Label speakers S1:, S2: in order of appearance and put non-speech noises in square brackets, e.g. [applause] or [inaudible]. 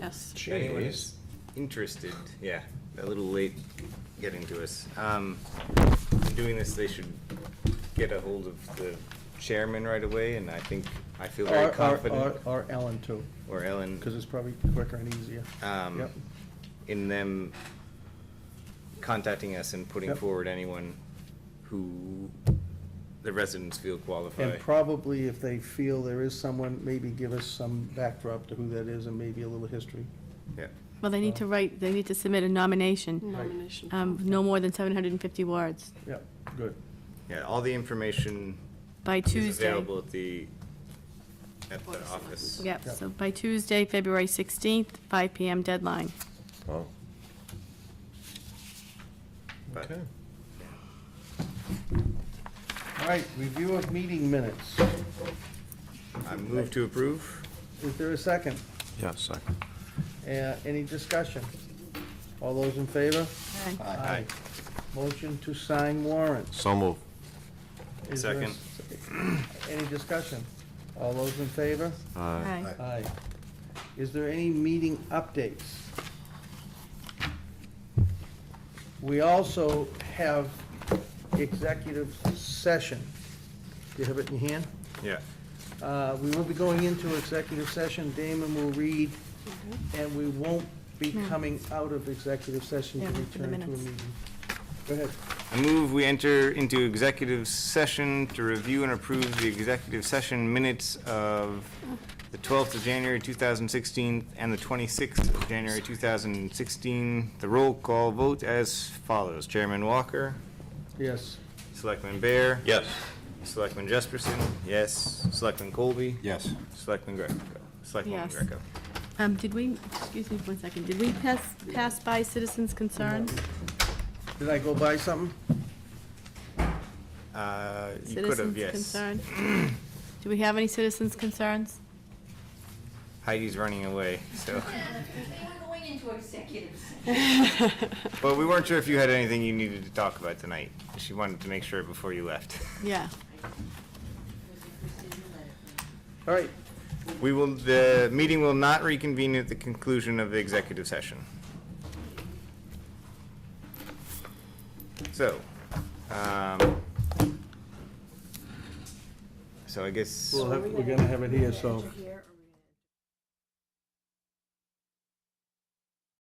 S1: us.
S2: If anyone is
S3: Jeez.
S2: interested, yeah, a little late getting to us. Um, in doing this, they should get a hold of the chairman right away, and I think, I feel
S3: Or-
S2: very
S3: or-
S2: confident,
S3: or- Or Ellen too,
S2: or
S3: because
S2: Ellen,
S3: it's probably quicker and easier.
S2: Um,
S3: Yep.
S2: in them contacting us and putting
S3: Yep.
S2: forward anyone who the residents feel qualified.
S3: And probably if they feel there is someone, maybe give us some backdrop to who that is and maybe a little history.
S2: Yeah,
S1: Well, they need to write, they need to submit a nomination,
S4: Nomination.
S1: um, no more than 750 words
S3: Yep, good.
S2: yeah, all the information
S1: by Tuesday.
S2: is available at the, at
S4: Board
S2: the
S4: of Selectmen.
S2: office.
S1: Yep,
S3: Yep.
S1: so by Tuesday, February 16th, 5 PM deadline.
S5: Oh,
S2: But-
S5: okay.
S3: All right, review of meeting minutes.
S2: I move to approve.
S3: Is there a second?
S5: Yeah, second.
S3: Uh, Any discussion? All those in favor?
S1: Okay.
S2: Aye.
S3: Motion to sign warrants.
S5: So move.
S3: Is there a
S2: Second.
S3: s- Any discussion? All those in favor?
S5: Aye.
S1: Aye.
S3: Aye. Is there any meeting updates? We also have executive session. Do you have it in your hand?
S2: Yeah.
S3: Uh, We will be going into executive session. Damon will read, and we won't be coming out of executive session to
S1: Yeah, for the
S3: return to a
S1: minutes.
S3: meeting. Go ahead.
S2: I move we enter into executive session to review and approve the executive session minutes of the 12th of January 2016 and the 26th of January 2016. The roll call vote as follows. Chairman Walker,
S3: Yes.
S2: Selectman Bear.
S5: Yes.
S2: Selectman Jesperson, yes. Selectman Colby.
S5: Yes.
S2: Selectman Greco. Selectman
S1: Yes.
S2: Greco.
S1: Um, did we, excuse me for one second, did we pass, pass by citizens' concerns?
S3: Did I go buy something?
S2: Uh, You could have,
S1: Citizens'
S2: yes.
S1: concern.
S2: [clears throat]
S1: Do we have any citizens' concerns?
S2: Heidi's running away, so.
S6: They were going into executive session.
S2: Well, we weren't sure if you had anything you needed to talk about tonight. She wanted to make sure before you left.
S1: Yeah.
S3: All right,
S2: We will, the meeting will not reconvene at the conclusion of the executive session. So, um, so I guess,
S3: we'll have- we're gonna have it here, so.